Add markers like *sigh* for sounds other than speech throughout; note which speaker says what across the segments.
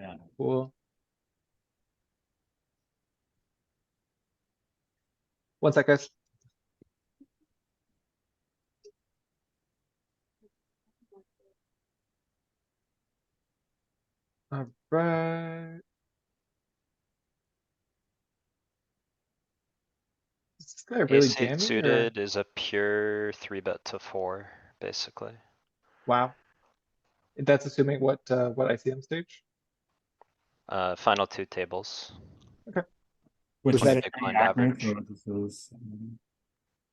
Speaker 1: Yeah.
Speaker 2: Cool. One sec, guys. Alright. Is this guy really
Speaker 3: Ace eight
Speaker 2: jamming or?
Speaker 3: suited is a pure three bet to four, basically.
Speaker 2: Wow. That's assuming what, uh, what ICM stage?
Speaker 3: Uh, final two tables.
Speaker 4: Was
Speaker 5: Which is
Speaker 4: that,
Speaker 3: Big
Speaker 4: an-
Speaker 3: blind
Speaker 5: accurate,
Speaker 3: average.
Speaker 5: or this is, um,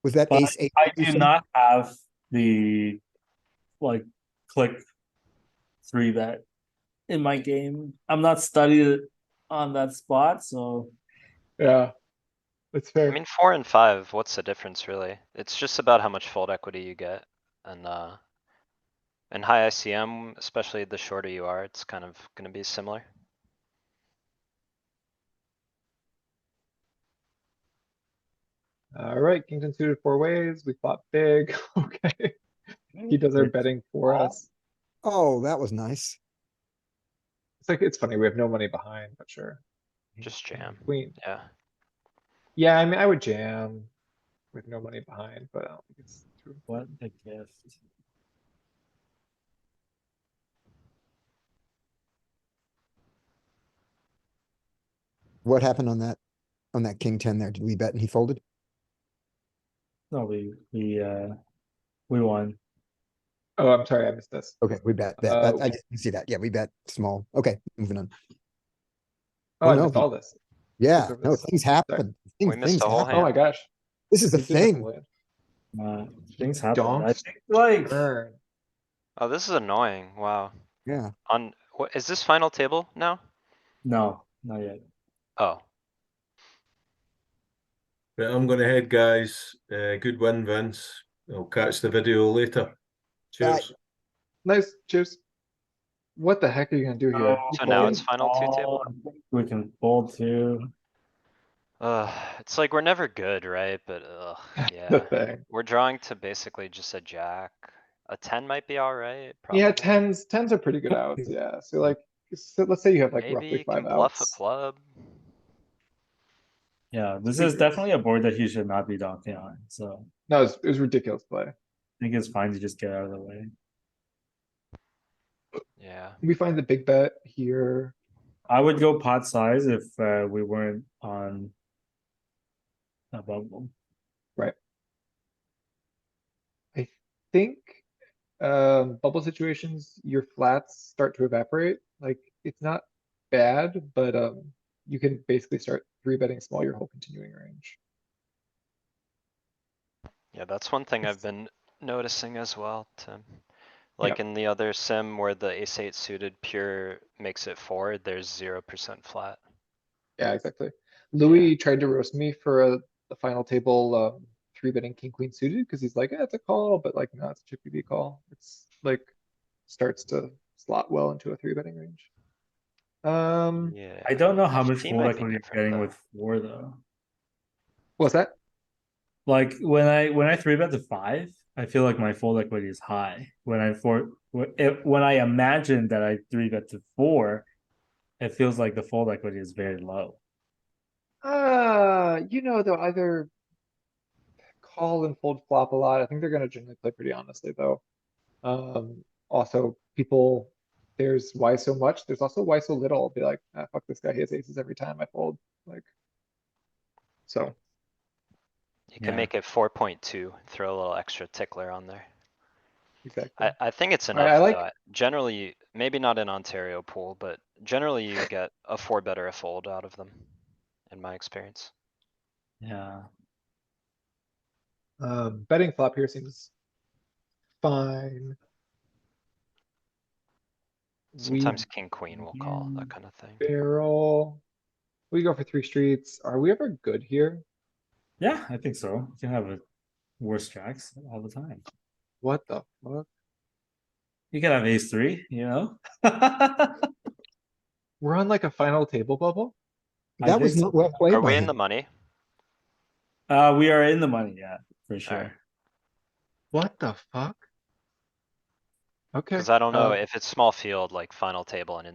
Speaker 4: was that
Speaker 1: But
Speaker 4: ace eight?
Speaker 1: I
Speaker 4: that you
Speaker 1: do
Speaker 4: said?
Speaker 1: not have the, like, click three bet in my game. I'm not studied on that spot, so
Speaker 2: Yeah. That's
Speaker 3: I
Speaker 2: fair.
Speaker 3: mean, four and five, what's the difference really? It's just about how much fold equity you get and, uh. And high ICM, especially the shorter you are, it's kind of gonna be similar.
Speaker 2: Alright, Kingston suited four ways. We flop big. *laughs* Okay. He does our betting for
Speaker 1: Wow.
Speaker 2: us.
Speaker 4: Oh, that was nice.
Speaker 2: It's like, it's funny. We have no money behind, but sure.
Speaker 3: Just jam,
Speaker 2: Queen.
Speaker 3: yeah.
Speaker 2: Yeah, I mean, I would jam with no money behind, but I don't think it's true.
Speaker 1: what a gift.
Speaker 4: What happened on that, on that king ten there? Did we bet and he folded?
Speaker 1: No, we, we, uh, we won.
Speaker 2: Oh, I'm sorry. I missed this.
Speaker 4: Okay, we bet, bet,
Speaker 3: Oh,
Speaker 4: that-
Speaker 2: Uh,
Speaker 4: I didn't see that. Yeah, we bet small. Okay, moving on.
Speaker 2: Oh,
Speaker 4: Oh,
Speaker 2: I
Speaker 4: no,
Speaker 2: missed
Speaker 4: but-
Speaker 2: all this.
Speaker 4: Yeah,
Speaker 2: there
Speaker 4: no,
Speaker 2: was-
Speaker 4: things happen.
Speaker 3: We
Speaker 4: Things-
Speaker 3: missed
Speaker 4: things
Speaker 3: the whole
Speaker 4: happen.
Speaker 2: Oh my gosh.
Speaker 4: This is the
Speaker 2: This isn't
Speaker 4: thing.
Speaker 2: lit.
Speaker 1: Uh, things happen. I
Speaker 2: Donks.
Speaker 1: think, like,
Speaker 2: Burn.
Speaker 3: Oh, this is annoying, wow.
Speaker 4: Yeah,
Speaker 3: On, what, is this final table now?
Speaker 1: no, not yet.
Speaker 3: Oh,
Speaker 6: Right, I'm gonna head, guys. Uh, good win, Vince. I'll catch the video later.
Speaker 4: Bye.
Speaker 6: Cheers.
Speaker 2: Nice. Cheers. What the heck are you gonna do here?
Speaker 1: No.
Speaker 2: You
Speaker 3: Oh, so now
Speaker 2: fold?
Speaker 3: it's final two table?
Speaker 1: Oh, Uh, I think We can fold too.
Speaker 3: Uh, it's like we're never good, right? But
Speaker 2: *laughs*
Speaker 3: ugh,
Speaker 2: *laughs* The
Speaker 3: yeah.
Speaker 2: thing.
Speaker 3: We're drawing to basically just a jack. A ten might be alright.
Speaker 2: Yeah,
Speaker 3: probably.
Speaker 2: tens, tens are pretty good outs, yeah, so like, so let's say you have like
Speaker 3: Maybe you
Speaker 2: roughly
Speaker 3: can
Speaker 2: five
Speaker 3: bluff a
Speaker 2: outs.
Speaker 3: club.
Speaker 1: Yeah, this is definitely a board that he should not be donking on, so
Speaker 2: No, it was, it was ridiculous play.
Speaker 1: I think it's fine to just get out of the way.
Speaker 3: Yeah,
Speaker 2: We find the big bet here,
Speaker 1: I would go pot size if uh, we weren't on a bubble.
Speaker 2: think, um, bubble situations, your flats start to evaporate, like, it's not bad, but, um, you can basically start three betting small your whole continuing range.
Speaker 3: yeah, that's one thing I've
Speaker 2: It's-
Speaker 3: been noticing as well, Tim.
Speaker 2: Yeah.
Speaker 3: Like in the other sim where the ace eight suited pure makes it four, there's zero percent flat.
Speaker 2: Yeah, exactly. Louis tried to roast me for a, the final table, um, three betting king queen suited, cause he's like, eh, it's a call, but like, no, it's a chippy V call. It's like, starts to slot well into a three betting range. Um,
Speaker 3: Yeah.
Speaker 1: I don't know how much
Speaker 3: 15
Speaker 1: fold
Speaker 3: might be
Speaker 1: equity you're
Speaker 3: different,
Speaker 1: getting
Speaker 3: though.
Speaker 1: with four though.
Speaker 2: what's that?
Speaker 1: Like when I when I three bet to five, I feel like my fold equity is high. When I four wh- if- when I imagine that I three bet to four, it feels like the fold equity is very low.
Speaker 2: Uh, you know, they'll either call and fold flop a lot. I think they're gonna generally play pretty honestly, though. Um, also, people, there's why so much. There's also why so little. Be like, ah, fuck this guy. He has aces every time I fold. Like, so
Speaker 3: You can
Speaker 1: Yeah.
Speaker 3: make it four point two, throw a little extra tickler on there.
Speaker 2: exactly.
Speaker 3: I, I think it's
Speaker 2: I- I
Speaker 3: enough.
Speaker 2: like-
Speaker 3: though. Generally, maybe not an Ontario pool, but generally you get a four bet or a fold out of them, in my experience.
Speaker 1: Yeah.
Speaker 2: Um, betting flop here seems fine. We
Speaker 3: Sometimes king, queen will call,
Speaker 2: Yeah.
Speaker 3: that kind of thing.
Speaker 2: barrel. We go for three streets. Are we ever good here?
Speaker 1: Yeah, I think so. You can have a worse jacks all the time.
Speaker 2: What the fuck?
Speaker 1: You can have ace three, you know? *laughs* I
Speaker 2: We're on like a final table bubble?
Speaker 4: that was
Speaker 1: think
Speaker 4: not
Speaker 1: so.
Speaker 4: well played
Speaker 3: Are
Speaker 4: by
Speaker 3: we in the
Speaker 4: him.
Speaker 3: money?
Speaker 1: Uh, we are in the money, yeah, for sure.
Speaker 2: What the fuck? Okay.
Speaker 3: Cause I don't know
Speaker 2: uh,
Speaker 3: if it's small field, like final table and in